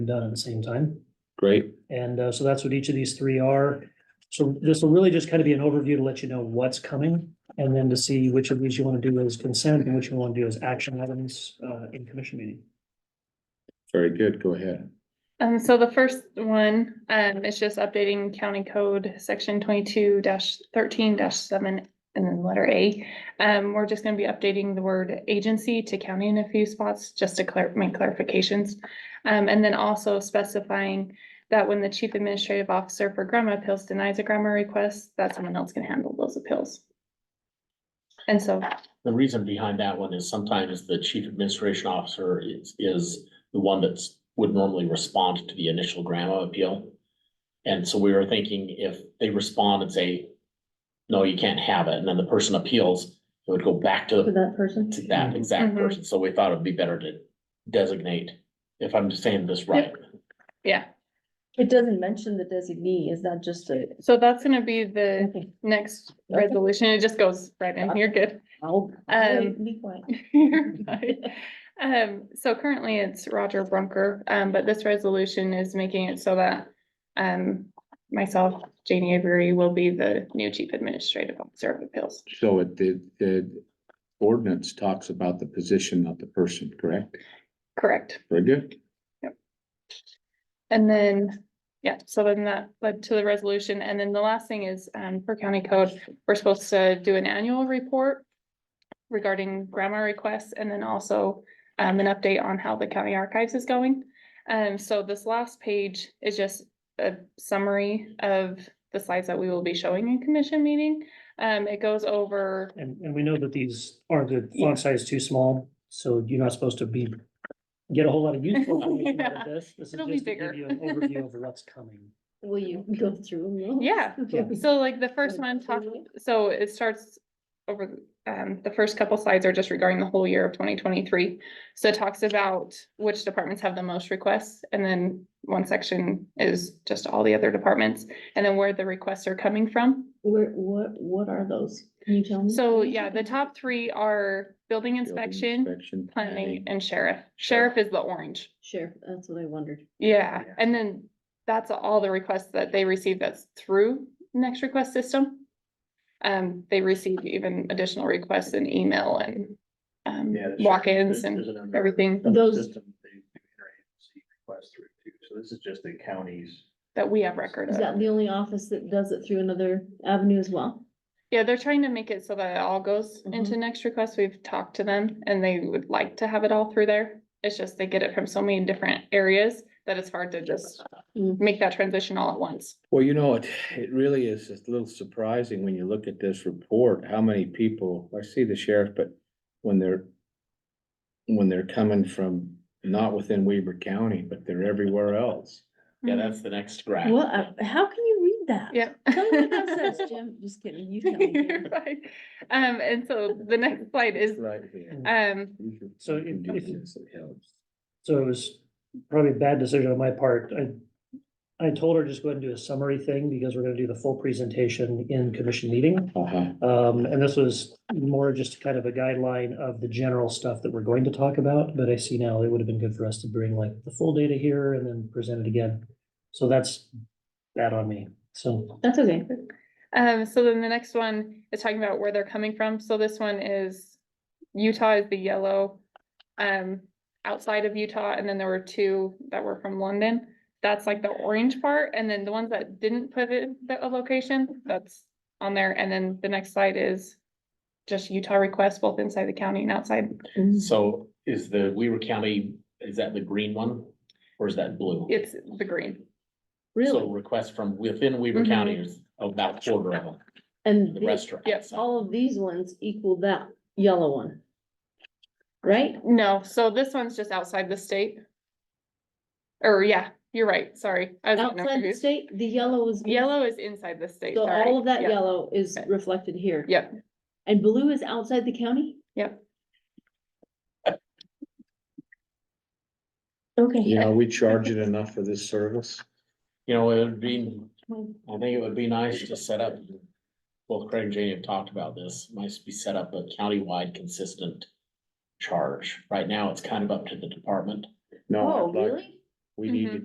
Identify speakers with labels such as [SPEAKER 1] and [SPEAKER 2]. [SPEAKER 1] done at the same time.
[SPEAKER 2] Great.
[SPEAKER 1] And uh, so that's what each of these three are. So this will really just kind of be an overview to let you know what's coming and then to see which of these you want to do as consent and which you want to do as action items uh, in commission meeting.
[SPEAKER 2] Very good. Go ahead.
[SPEAKER 3] Um, so the first one, um, is just updating county code, section twenty-two thirteen seven, and then letter A. Um, we're just gonna be updating the word agency to county in a few spots, just to clar- make clarifications. Um, and then also specifying that when the chief administrative officer for grandma appeals denies a grandma request, that someone else can handle those appeals. And so
[SPEAKER 4] The reason behind that one is sometimes the chief administration officer is, is the one that's, would normally respond to the initial grandma appeal. And so we were thinking if they respond and say, no, you can't have it, and then the person appeals, it would go back to, the-
[SPEAKER 5] For that person?
[SPEAKER 4] to that exact
[SPEAKER 3] Mhm.
[SPEAKER 4] person, so we thought it'd be better to designate, if I'm saying this right.
[SPEAKER 5] It doesn't mention the designee, is that just a?
[SPEAKER 3] So that's gonna be the
[SPEAKER 5] Okay,
[SPEAKER 3] next
[SPEAKER 5] Okay.
[SPEAKER 3] resolution. It just goes right in. You're good.
[SPEAKER 5] I'll-
[SPEAKER 3] Um,
[SPEAKER 5] Be quiet.
[SPEAKER 3] You're fine. Um, so currently it's Roger Brunker, um, but this resolution is making it so that um, myself, Janie Avery, will be the new chief administrative officer of appeals.
[SPEAKER 2] So it, the, the ordinance talks about the position of the person, correct?
[SPEAKER 3] Correct.
[SPEAKER 2] Very good.
[SPEAKER 3] And then, yeah, so then that led to the resolution. And then the last thing is, um, per county code, we're supposed to do an annual report regarding grammar requests and then also, um, an update on how the county archives is going. Um, so this last page is just a summary of the slides that we will be showing in commission meeting. Um, it goes over,
[SPEAKER 1] And, and we know that these are the font size too small, so you're not supposed to be, get a whole lot of useful information out of this. This is
[SPEAKER 3] It'll be
[SPEAKER 1] just to give
[SPEAKER 3] bigger.
[SPEAKER 1] you an overview of what's coming.
[SPEAKER 5] Will you go through? them?
[SPEAKER 3] Yeah.
[SPEAKER 5] Okay.
[SPEAKER 3] so like the first one talks so it starts over, um, the first couple slides are just regarding the whole year of twenty twenty-three. So it talks about which departments have the most requests, and then one section is just all the other departments, and then where the requests are coming from.
[SPEAKER 5] Where, what, what are those? Can you tell me?
[SPEAKER 3] So, yeah, the top three are Mm-hmm. building
[SPEAKER 2] Building
[SPEAKER 3] inspection,
[SPEAKER 2] Inspection.
[SPEAKER 3] planning, and sheriff. Sheriff is the orange.
[SPEAKER 5] Sheriff, that's what I wondered.
[SPEAKER 3] Yeah,
[SPEAKER 4] Yeah.
[SPEAKER 3] and then that's all the requests that they receive that's through next request system. Um, they receive even additional requests in email and um, walk-ins and everything
[SPEAKER 5] Those-
[SPEAKER 6] System they do interagency requests through too, so this is just the counties.
[SPEAKER 3] that we have record
[SPEAKER 5] Is that
[SPEAKER 3] of.
[SPEAKER 5] the only office that does it through another avenue as well?
[SPEAKER 3] Yeah, they're trying to make it so that it all goes
[SPEAKER 5] Mm-hmm.
[SPEAKER 3] into next request. We've talked to them and they would like to have it all through there. It's just they get it from so many different areas that it's hard to just
[SPEAKER 5] Mm.
[SPEAKER 3] make that transition all at once.
[SPEAKER 2] Well, you know, it, it really is just a little surprising when you look at this report, how many people, I see the sheriff, but when they're when they're coming from not within Weber County, but they're everywhere else.
[SPEAKER 3] mm.
[SPEAKER 4] Yeah, that's the next graph.
[SPEAKER 5] Well, I- uh, how can you read that?
[SPEAKER 3] Yeah.
[SPEAKER 5] Tell me what that says, Jim. Just kidding, you tell me.
[SPEAKER 3] You're
[SPEAKER 5] Jim.
[SPEAKER 3] fine. Um, and so the next slide is,
[SPEAKER 2] Right here.
[SPEAKER 3] um,
[SPEAKER 1] So
[SPEAKER 2] You can
[SPEAKER 1] if-
[SPEAKER 2] do
[SPEAKER 1] if-
[SPEAKER 2] this, it helps.
[SPEAKER 1] So it was probably a bad decision on my part. I, I told her just go ahead and do a summary thing because we're gonna do the full presentation in commission meeting.
[SPEAKER 2] Uh-huh.
[SPEAKER 1] Um, and this was more just kind of a guideline of the general stuff that we're going to talk about, but I see now it would have been good for us to bring like the full data here and then present it again. So that's that on me, so.
[SPEAKER 5] That's okay.
[SPEAKER 3] um, so then the next one is talking about where they're coming from. So this one is Utah is the yellow. Um, outside of Utah, and then there were two that were from London. That's like the orange part, and then the ones that didn't put it, the a location, that's on there. And then the next slide is just Utah requests, both inside the county and outside.
[SPEAKER 4] So
[SPEAKER 5] Mm-hmm.
[SPEAKER 4] is the Weaver County, is that the green one, or is that blue?
[SPEAKER 3] It's the green.
[SPEAKER 4] So
[SPEAKER 5] Really? Mm-hmm.
[SPEAKER 4] requests from within Weaver
[SPEAKER 3] Mhm.
[SPEAKER 4] County is about quarter of them,
[SPEAKER 5] And
[SPEAKER 4] the
[SPEAKER 5] the-
[SPEAKER 4] restaurant.
[SPEAKER 3] yes,
[SPEAKER 5] all of these ones equal that yellow one. Right?
[SPEAKER 3] No, so this one's just outside the state. Or yeah, you're right, sorry. I was getting
[SPEAKER 5] Outside the
[SPEAKER 3] confused.
[SPEAKER 5] state, the yellow is.
[SPEAKER 3] Yellow is inside the state.
[SPEAKER 5] So
[SPEAKER 3] sorry.
[SPEAKER 5] all of that
[SPEAKER 3] Yeah.
[SPEAKER 5] yellow is
[SPEAKER 3] Okay.
[SPEAKER 5] reflected here.
[SPEAKER 3] Yep.
[SPEAKER 5] And blue is outside the county?
[SPEAKER 3] Yep.
[SPEAKER 5] Okay.
[SPEAKER 2] You know, we charge it enough for this service.
[SPEAKER 4] You know, it would be,
[SPEAKER 5] Mm-hmm.
[SPEAKER 4] I think it would be nice to set up, both Craig and Janie have talked about this, nice to be set up a countywide consistent charge. Right now, it's kind of up to the department.
[SPEAKER 2] No,
[SPEAKER 5] Oh,
[SPEAKER 2] I'd like-
[SPEAKER 5] really?
[SPEAKER 4] we need
[SPEAKER 7] Mhm.
[SPEAKER 4] to